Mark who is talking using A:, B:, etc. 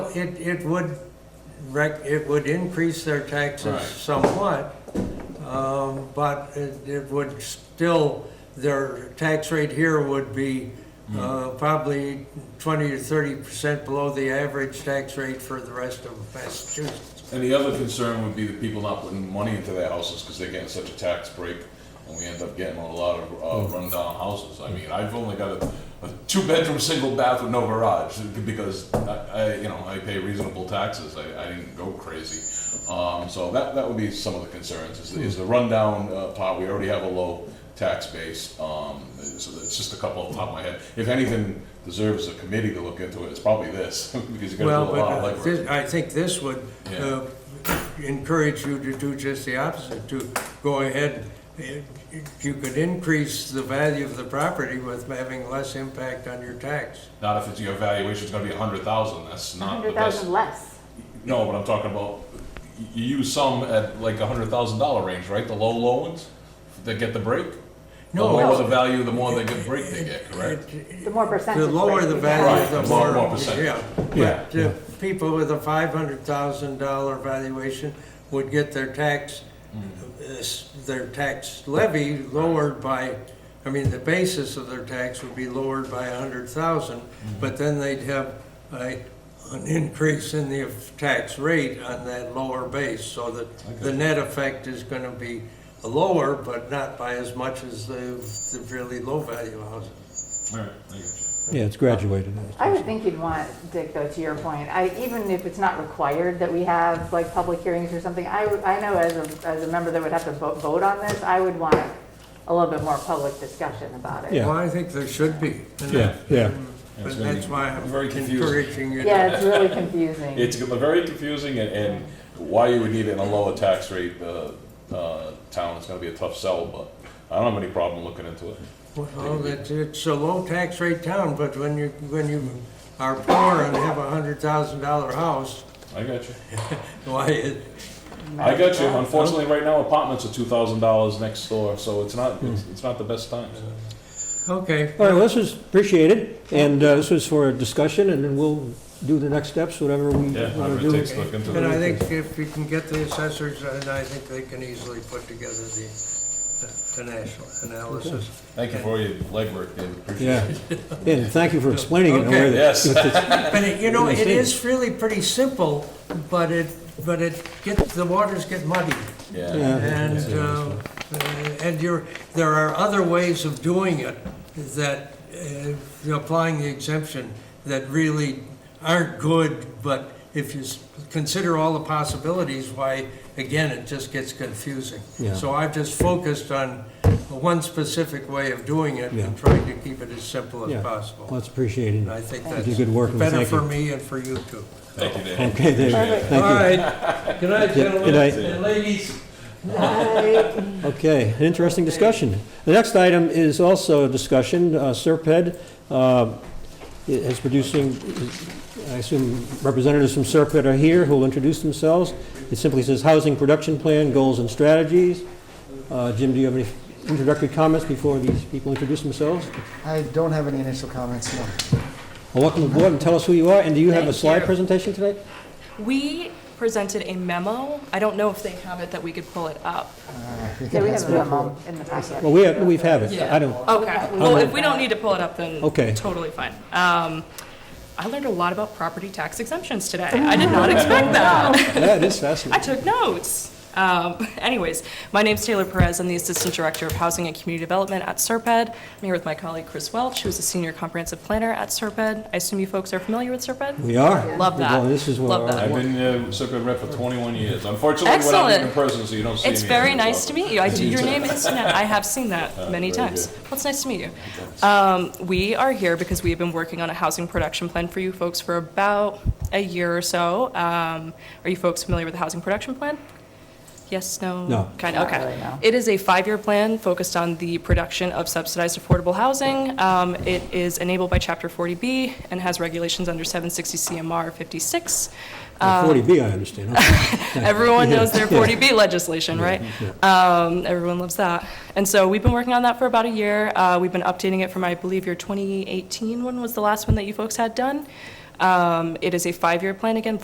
A: it, it would rec, it would increase their
B: Right.
A: taxes somewhat, um, but it, it would still, their tax rate here would be,
B: Hmm.
A: uh, probably twenty to thirty percent below the average tax rate for the rest of Massachusetts.
B: And the other concern would be the people not putting money into their houses because they're getting such a tax break, and we end up getting a lot
A: Mm.
B: of uh, rundown houses. I mean, I've only got a, a two-bedroom, single bath with no garage because I, I, you know, I pay reasonable taxes. I, I didn't go crazy. Um, so that, that would be some of the concerns, is, is the rundown uh, part. We already have a low tax base, um, so it's just a couple off the top of my head. If anything deserves a committee to look into it, it's probably this, because you're
A: Well,
B: gonna do a lot of
A: but
B: legwork.
A: uh, this- I think this would uh, encourage you to do just the opposite, to go ahead. It- You could increase the value of the property with having less impact on your tax.
B: Not if it's, your valuation's gonna be a hundred thousand, Uh, that's not the
C: Hundred
B: best.
C: thousand less.
B: No, but I'm talking about, y- you use some at like a hundred thousand dollar range, right, the low, low ones? That get the break?
A: No.
B: The lower the value, the more they get break they get, correct?
C: The more percentage.
A: The lower
C: rate
A: the
C: you
A: value,
B: Right,
A: the
B: the
A: more.
B: more percentage.
A: Yeah,
B: Yeah.
A: but uh, people with a five hundred thousand dollar valuation would get their tax,
B: Mm-hmm.
A: uh, s- their tax levy lowered by, I mean, the basis of their tax would be lowered by a hundred thousand,
B: Mm-hmm.
A: but then they'd have a, an increase in the f- tax rate on that lower base, so that the
B: Okay.
A: net effect is gonna be lower, but not by as much as the, the really low value houses.
B: Alright, I get you.
D: Yeah, it's graduated.
C: I would think you'd want, Dick, though, to your point, I, even if it's not required that we have like public hearings or something, I, would- I know as a, as a member that would have to vote, vote on this, I would want a little bit more public discussion about it.
D: Yeah.
A: Well, I think there should be. and
D: Yeah, yeah.
B: It's
A: But
B: gonna
A: that's
B: be
A: why I'm
B: very confusing.
A: encouraging you. to-
C: Yeah, it's really confusing.
B: It's gonna- very confusing and, and why you would need it in a lower tax rate, uh, uh, town, it's gonna be a tough sell, but I don't have any problem looking into it.
A: Well, that, it's a low tax rate town, but when you, when you are poor and have a hundred thousand dollar house,
B: I got you.
A: why, it-
B: I got you. Unfortunately, right now apartments are two thousand dollars next door, so it's not, it's, it's not the best time.
A: okay.
D: All right, well, this is appreciated, and uh, this was for discussion, and then we'll do the next steps, whatever we
B: Yeah,
D: want to
B: whatever it
D: do.
B: takes to look into
A: And I
B: it.
A: think if you can get the assessors, and I think they can easily put together the, the national analysis.
B: Thank you for your legwork, David. Appreciate
D: Yeah,
B: it.
D: and thank you for explaining it in a way
A: Okay.
D: that-
B: Yes.
D: that.
A: But it- you know, it
D: Understand.
A: is really pretty simple, but it, but it gets, the waters get muddy.
B: Yeah.
D: Yeah.
A: And, uh, and you're, there are other ways of doing it that, uh, applying the exemption that really aren't good, but if you s- consider all the possibilities, why, again, it just gets confusing.
D: Yeah.
A: So I've just focused on one specific way of doing it
D: Yeah.
A: and trying to keep it as simple as
D: Yeah. Well,
A: possible.
D: it's appreciated.
A: And I think
D: You did
A: that's
D: good work, and
A: better
D: thank
A: for
D: you.
A: me and for you too.
B: Thank you, David.
D: Okay, David, thank
A: All right, good night,
D: Good
A: gentlemen
D: night.
A: and ladies.
D: you. Okay, an interesting discussion. The next item is also a discussion. Uh, Serped uh, is producing, I assume representatives from Serped are here who will introduce themselves. It simply says Housing Production Plan, Goals and Strategies. Uh, Jim, do you have any introductory comments before these people introduce themselves?
E: I don't have any initial comments, no.
D: Well, Welcome aboard and tell us who you are, and do you have a
F: Thank
D: slide
F: you.
D: presentation today?
F: We presented a memo. I don't know if they have it that we could pull it up.
C: Yeah, we have a memo in the packet.
D: Well, we have, we've have it. I don't,
F: Okay. Well, if we don't need to pull it up, then
D: Okay.
F: totally fine. Um, I learned a lot about property tax exemptions today. I did not expect that.
D: yeah, it is
F: I
D: fascinating.
F: took notes. Um, anyways, my name's Taylor Perez. I'm the Assistant Director of Housing and Community Development at Serped. I'm here with my colleague Chris Welch, who's a Senior Comprehensive Planner at Serped. I assume you folks are familiar with Serped?
D: We are.
F: Love that.
D: Well, This is what
F: Love
D: our-
F: that.
B: I've been uh, Serpent rep for 21 years. Unfortunately, we're not
F: Excellent.
B: in person, so you don't see me.
F: It's very
B: so-
F: nice to meet you. I do, your name is, I have seen that many
B: Uh, very
F: times.
B: good.
F: Well, it's nice to meet you. Um, we are here because we have been working on a housing production plan for you folks for about a year or so. Um, are you folks familiar with the housing production plan? Yes, no?
D: No.
F: Kind of,
C: Not really,
F: okay.
C: no.
F: It is a five-year plan focused on the production of subsidized affordable housing. Um, It is enabled by Chapter 40B and has regulations under 760 CMR 56.
D: Well, 40B,
F: Um,
D: I understand. Okay.
F: Everyone knows their 40B legislation, right? Um, Everyone loves that. And so we've been working on that for about a year. Uh, We've been updating it from, I believe, your 2018 one was the last one that you folks had done. Um, Um, It is a five-year plan, again,